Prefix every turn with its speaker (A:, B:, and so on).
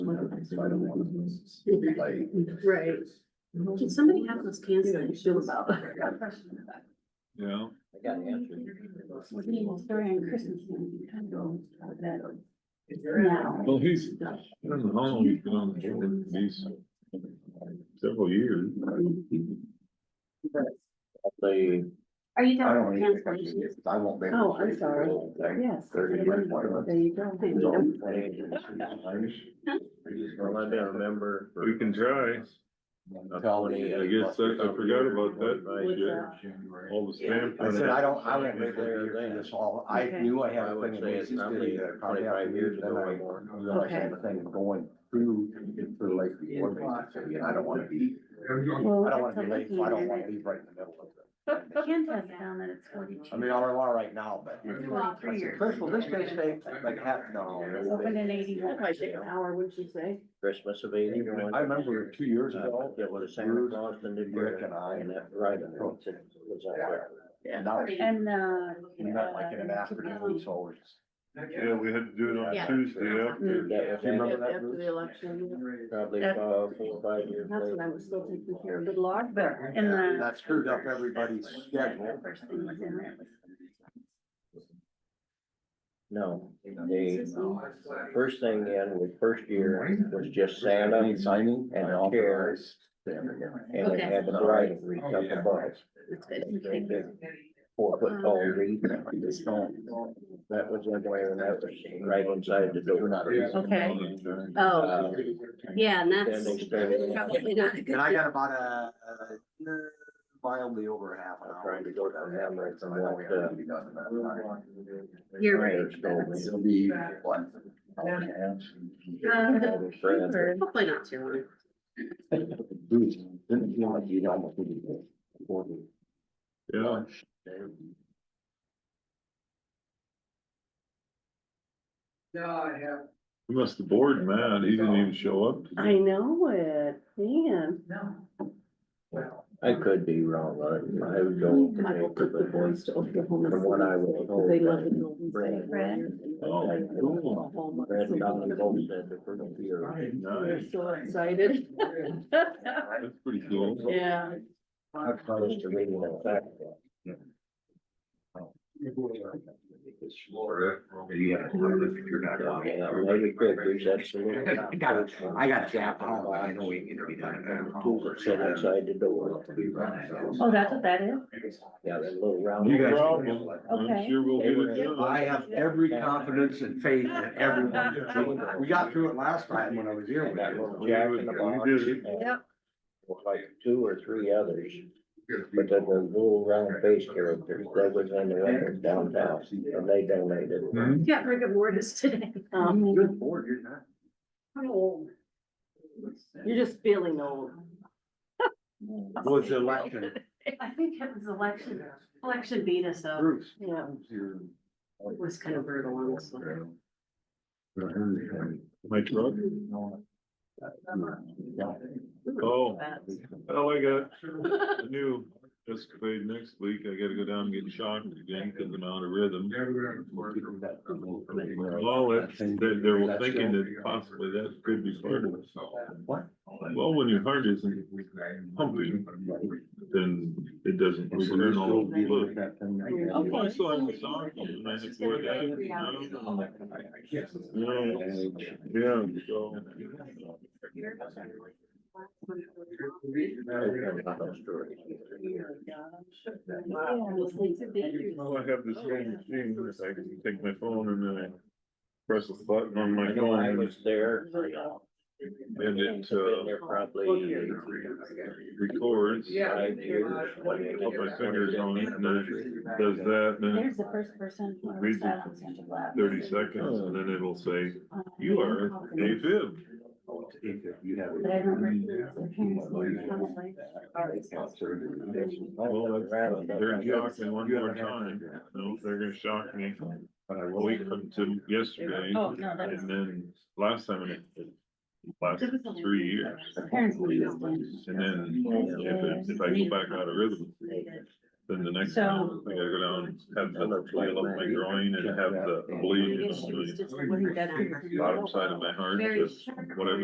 A: so I don't want to
B: Yeah.
A: be late.
B: Right. Can somebody have those cans that I feel about?
C: Yeah.
D: I got an answer.
B: We're getting a story on Christmas, and you kind of go out of that now.
C: Well, he's, I don't know how long he's been on the board, but he's several years.
D: They,
B: Are Oh, you
A: I
B: done
A: don't
B: with
A: need to,
B: cancellations?
A: I won't be.
B: Oh, I'm sorry. Yes.
A: Thirty minutes, whatever.
B: There you go. Thank you.
D: well, I don't remember. for-
C: We can try.
D: Tony.
C: I guess that's- I forgot about that.
D: Right, yeah.
B: uh,
C: All the stamp.
A: I said, I don't, I won't be
D: There,
A: there
D: there.
A: this all, I
B: Okay.
A: knew I had
D: I
A: a
D: would
A: thing. in
D: say it's
A: Macy's
D: probably
A: City that I probably
D: 25
A: have to
D: years
A: do, then
D: ago
A: I
D: or more.
A: realized I had a thing going through, through Lake Before Macy's City, and I don't wanna be,
B: Well,
A: I don't
B: that's
A: wanna be late, so I
B: okay.
A: don't wanna be right in the middle of it.
B: Ken has found that it's forty-two.
A: I mean, I don't want right now, but.
B: Twenty-three years.
A: First of all, this may stay like half, no.
B: It's open in eighty-one.
D: That might take an
B: hour, wouldn't you say?
D: Christmas of eighty one.
A: I remember two years ago,
D: Uh, It was Santa Claus and New Year.
A: Rick and I-
D: And that, right, it
A: Oh.
D: was out there.
A: and now it's-
B: And, uh. um,
A: we met like in an afternoon, so always.
C: Yeah, we had to do it
B: Yeah.
C: on Tuesday after.
D: That
A: Do you
D: was
A: remember that,
B: After
A: Bruce?
B: the election,
D: probably about four or five years
B: that's what I
D: later.
B: was still taking care of, but large, but in the.
A: That screwed up everybody's schedule.
B: First thing was in there was.
D: No, the first thing in was first year was just Santa
A: Any signing
D: and
A: and all
D: chairs.
A: the. Yeah.
D: and they
B: Okay.
D: had the bride and
B: Oh,
D: wreath up above.
B: It's
D: Big,
B: good.
D: big Four
B: Uh, Uh-huh.
D: foot tall wreath. That was one way and that was right inside the door.
B: Okay.
D: Uh,
B: Oh, yeah, and
D: Then
B: that's
D: they started.
B: probably not a good.
A: And I got about a, uh, mildly over half an hour.
D: Trying to go down that way from
A: I know we
D: what, uh,
A: haven't even gotten that
B: You're right.
D: Raiders told
A: far.
D: me.
A: It'll be what? hour and a half.
B: Uh,
D: All the friends.
B: Hopefully not too long.
A: Bruce, Didn't feel like you'd almost. did it before the
C: Yeah,
A: lunch.
C: we must have bored Matt. He didn't even show up.
B: I know it, man.
D: I could be wrong, but I would go. with the
B: I will put the
D: paper, but-
B: boys to Oklahoma.
D: From what I was
B: City, 'cause
D: told,
B: They love the
D: uh,
B: Golden
D: Brad-
B: State Warriors.
C: Oh,
B: Like,
D: cool.
B: Oklahoma,
D: Brad
B: so
D: and Donald
B: they're-
D: both said the first year.
B: They're
C: Nice.
B: so excited.
C: That's pretty cool.
B: Yeah.
D: I promised to read it on Saturday.
A: Yeah.
D: Yeah, Maybe Christmas, that's a little.
A: I got it. I got a gap on, but I know we need to be done.
D: Over, sit outside the door.
B: Oh, that's what that is?
D: Yeah, that little round.
C: You guys- I'm sure we'll get it
A: I
C: done.
A: have every confidence and faith in everyone. We got through it last time when I was here.
D: And that little
C: We
D: Jack
C: would-
D: in the
C: we
D: box.
C: did it.
D: and Uh, Like two or three others, but then the little round face characters, that was on the record downtown, and they donated.
C: Hmm?
B: Yeah, Rick and Mortis today. Um,
A: Good board, you're not.
B: You're just feeling old.
A: Was the election,
B: I think it was election, election beat us up.
A: Bruce.
B: Yeah. It was kind of brutal, honestly.
C: Hmm? My truck? Oh, well, I got a new escapade next week. I gotta go down and get shocked again because I'm out of rhythm. Well, it's, they, they were thinking that possibly that could be part of it.
A: What?
C: Well, when your heart isn't pumping, then it doesn't move around all over the place.
B: Okay.
C: I saw him with Donkey and I had four that, you know? Yeah, so. Well, Oh, I have this little machine that I can take my phone and then I press the button on my
D: I know I
C: phone
D: was there.
C: and it,
D: Been
C: uh,
D: there probably.
C: records.
D: Five years.
C: Put my fingers on it and then it does that, and then
E: There's the first person. who
C: Reads it
E: sat
C: for
E: on Santa Claus.
C: thirty seconds and then it'll say, you are a fib.
E: But I remember he was the parents were probably already
C: Well, that's- they're shocking one more time. No, they're gonna shock me. A week from to yesterday
E: Oh, no, that was-
C: and then last time it last
E: It was only-
C: three years.
E: the parents were just doing-
C: And then if, it- if I go back out of rhythm, then the next time I gotta go down, have the, feel up my groin and have the bleed.
B: Maybe
C: in
B: she was
C: the
B: just- wasn't that on her-
C: Bottom side of my heart,
B: Very
C: just
B: sharp.
C: whatever